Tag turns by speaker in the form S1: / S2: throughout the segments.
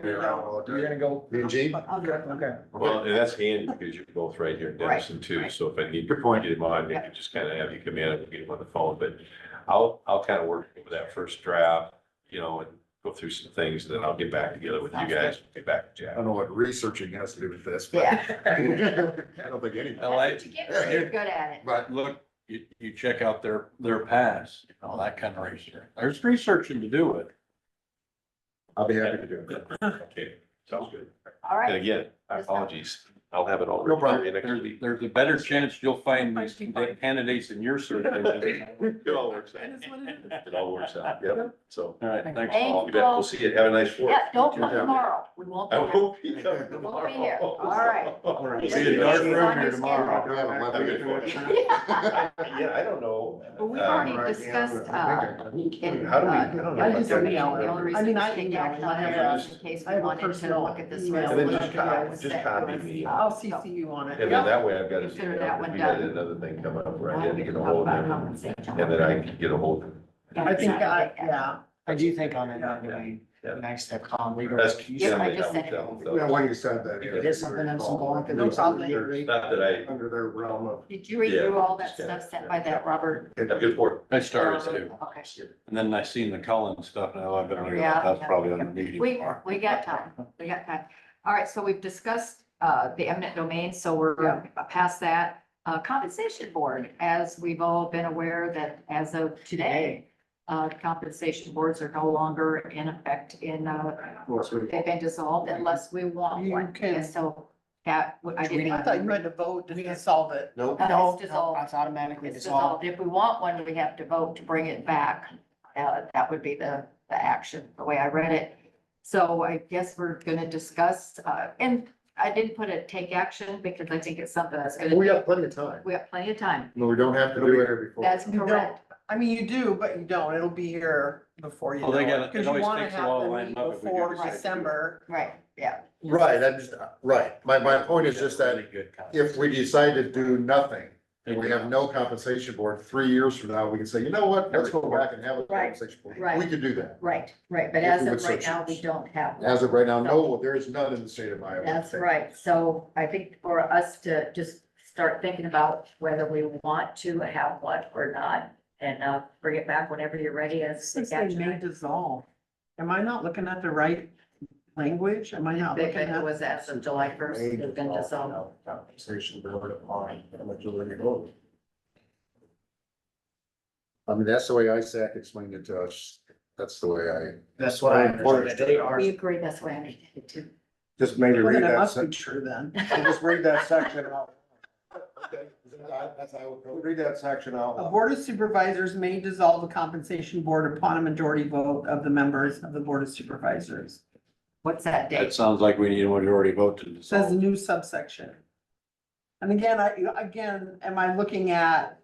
S1: be around all
S2: You're
S1: the
S2: gonna go,
S3: Eugene?
S2: okay.
S4: Well, and that's handy because you're both right here in
S5: Right,
S4: Denison too,
S5: right.
S4: so if I need to point you to mine, I
S5: Yeah.
S4: can just kind of have you come in and get them on the phone, but I'll, I'll kind of work with that first draft, you know, and go through some things, and then I'll get back together with you
S5: Sounds
S4: guys, get back to
S3: I
S4: Jack.
S3: don't know what researching has to do with this, but
S5: Yeah.
S3: I don't think anything.
S1: I like-
S5: That's what you get when You're good at it.
S3: But
S1: Look, you, you check out their, their past, you know, that kind of research. There's researching to do it.
S3: I'll be happy to do it.
S4: Okay, sounds good.
S5: All
S4: And
S5: right.
S4: again, apologies, I'll have it all.
S3: No problem.
S4: Next
S1: There's,
S4: week.
S1: there's a better chance you'll find these candidates in your search. than-
S4: It all works out. It all works out, yep, so.
S1: All right, thanks.
S5: Thank
S4: I'll be back. We'll see you, have a nice work.
S5: Yeah, don't come tomorrow. We won't.
S4: I
S5: be here.
S4: won't be coming
S3: We'll be
S4: tomorrow.
S5: here. All right.
S4: All
S1: We'll
S4: right.
S1: See you in dark room here tomorrow.
S3: I haven't left yet.
S5: Yeah.
S4: Yeah, I don't know.
S5: But we've
S4: Um,
S5: already discussed, uh, in,
S4: How do we, I
S5: uh,
S4: don't know.
S5: I just don't
S4: about
S5: know, the
S4: that.
S5: only
S6: I
S5: reason
S6: mean,
S5: we
S6: I
S5: didn't
S6: email
S5: act
S6: it.
S5: on
S6: I
S5: it
S6: have
S5: was in case
S6: I
S5: we
S6: have a
S5: wanted to
S6: personal
S5: look at this
S6: email.
S4: And then just
S5: resolution. that
S4: copy,
S5: was
S4: just
S5: sent
S4: copy
S5: to
S4: me.
S5: us.
S6: I'll
S5: So
S6: CC you on it.
S4: And then that way I've got to.
S5: Consider that one
S4: We got
S5: done.
S4: Another thing coming up where I
S5: now
S4: had
S5: we
S4: to
S5: can
S4: get a
S5: talk
S4: hold
S5: about
S4: of them,
S5: compensation.
S4: and then I can get a hold of them.
S6: I think, I-
S5: Exactly.
S6: yeah,
S7: I do think on it, that would
S4: Yeah.
S7: be nice to call and read.
S4: That's.
S5: Yes, I just said it.
S3: Yeah, when you said that. yeah.
S7: There's something else involved in
S6: No problem.
S3: They're
S4: Not that
S3: Under their realm of.
S5: Did you read
S4: Yeah,
S5: through all that
S4: just got it.
S5: stuff sent by that Robert?
S4: I, have good work.
S1: I started to,
S5: Okay.
S1: and then I seen the Cullen stuff, and I better read
S5: Yeah.
S1: that, that's probably on the meeting.
S5: We,
S1: tomorrow.
S5: we got time, we got time. All right, so we've discussed, uh, the eminent domain, so we're past that. Uh, compensation board, as we've all been aware that as of today, uh, compensation boards are no longer in effect in, uh,
S3: Well, so-
S5: they've been dissolved unless we want
S6: You
S5: one.
S6: can-
S5: And so that, would- I didn't.
S6: I thought you had to vote to solve it.
S3: Nope.
S5: Uh,
S7: No,
S5: it's
S7: no,
S5: dissolved.
S7: that's automatically
S5: It's
S7: dissolved.
S5: dissolved. If we want one, we have to vote to bring it back. Uh, that would be the, the action, the way I read it. So I guess we're gonna discuss, uh, and I didn't put a take action because I think it's something that's gonna.
S3: We have plenty of time.
S5: We have plenty of time.
S3: No, we don't have to do it before.
S5: That's
S6: You don't.
S5: correct.
S6: I mean, you do, but you don't. It'll be here before you
S1: Well,
S6: know
S1: they gotta-
S6: it.
S1: it
S6: Because you
S1: always
S6: want to
S1: takes a while
S6: have
S1: to
S6: the
S1: line
S6: meeting
S1: up if we do
S6: before
S1: decide to do it.
S6: December.
S5: Right, yeah.
S3: Right, I just, uh, right. My, my point is just that
S1: Really good concept.
S3: if we decide to do nothing, and we have no compensation board, three years from now, we can say, you know what, let's go back and have a
S5: Right,
S3: compensation board.
S5: right.
S3: We could do that.
S5: Right, right. But
S3: If
S5: as
S3: we
S5: of
S3: would
S5: right
S3: search
S5: now,
S3: it.
S5: we don't have. one.
S3: As of right now, no, there is none in the state of Iowa.
S5: That's right. So I think for us to just start thinking about whether we want to have one or not. And, uh, bring it back whenever you're ready as.
S6: Since they
S5: action
S6: may
S5: item.
S6: dissolve. Am I not looking at the right language? Am I not looking
S5: Because it
S6: at?
S5: was as of July first, it's been dissolved.
S3: Compensation board upon a majority vote. I mean, that's the way ISAC explained it to us. That's the way I,
S7: That's what I understood. They are,
S5: We agree, that's why I needed it too.
S3: just maybe
S6: Well,
S3: read
S6: then it
S3: that.
S6: must be
S3: sec-
S6: true then.
S3: Just read that section out. Read that section out.
S6: A board of supervisors may dissolve a compensation board upon a majority vote of the members of the board of supervisors.
S5: What's that
S1: That
S5: date?
S1: sounds like we need a majority vote to
S6: Says
S1: dissolve.
S6: a new subsection. And again, I, again, am I looking at,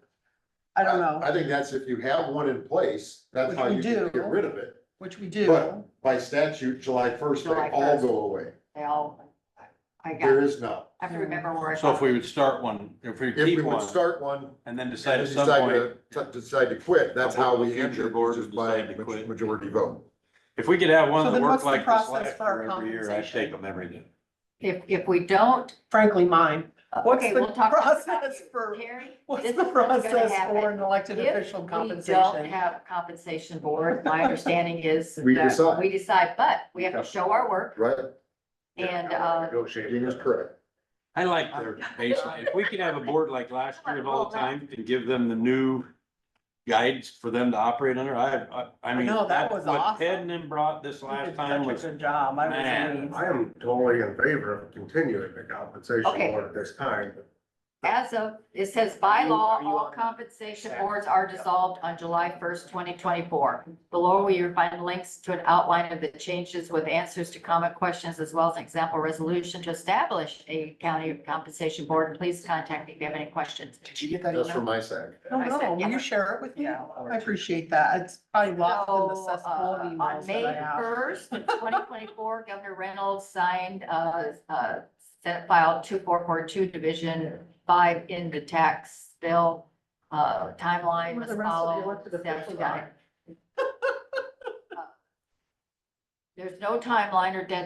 S6: I don't know,
S3: I think that's if you have one in place, that's
S6: Which
S3: how
S6: we
S3: you can
S6: do.
S3: get rid of it.
S6: which we
S3: But-
S6: do.
S3: By statute, July first, they
S5: July
S3: all
S5: 1st.
S3: go away.
S5: They all, I got,
S3: There
S5: I
S3: is none.
S5: have to remember where I.
S1: So if we
S5: got it.
S1: would start one, if we
S3: If we
S1: keep
S3: would
S1: one,
S3: start one,
S1: and then decide
S3: and
S1: at
S3: decide
S1: some point,
S3: to, to- decide to quit, that's how we
S1: Future
S3: end it,
S1: board
S3: just
S1: would
S3: by
S1: decide to quit.
S3: majority vote.
S1: if we could have
S6: So
S1: one that
S6: then
S1: worked
S6: what's the
S1: like this
S6: process
S1: last
S6: for our
S1: year every year, I
S6: compensation?
S1: take them every day.
S5: If, if we don't. uh,
S6: Frankly, mine. What's
S5: okay,
S6: the
S5: we'll talk about it.
S6: process for-
S5: Terry,
S6: What's
S5: this
S6: the
S5: is what's gonna
S6: process for
S5: happen.
S6: an elected
S5: If
S6: official
S5: we don't
S6: compensation?
S5: have compensation board, my understanding is
S3: We
S5: that
S3: decide.
S5: we decide, but we have
S3: Yeah.
S5: to show our work
S3: Right?
S5: and, uh,
S3: Negotiating is correct.
S1: I like their baseline. If we could have a board like last year and all the time and give them the new guides for them to operate under, I, I, I mean,
S6: know, that
S1: that's
S6: was
S1: what
S6: awesome.
S1: Ted and them brought this last time was,
S6: Such a good job. I was
S1: Man.
S6: amazed.
S8: I am totally in favor of continuing the compensation
S5: Okay.
S8: board at this time.
S5: As of, it says by law, all compensation boards are dissolved on July first, twenty twenty-four. Below will you find links to an outline of the changes with answers to common questions as well as an example resolution to establish a county compensation board. Please contact me if you have any questions.
S7: did you get that
S3: That's from
S7: email?
S3: my side.
S6: No,
S5: I said,
S6: no, will
S5: yeah.
S6: you share it with me?
S7: Yeah.
S6: I appreciate that. It's probably lost in the
S5: So,
S6: cesspool of
S5: uh,
S6: emails
S5: On May
S6: that I have.
S5: first, twenty twenty-four, Governor Reynolds signed, uh, uh, Senate File two four four two, Division five in the tax bill. Uh, timeline
S6: Where
S5: was
S6: the rest of the
S5: followed.
S6: elected
S5: Steps
S6: officials
S5: got it. There's Uh, no timeline or deadline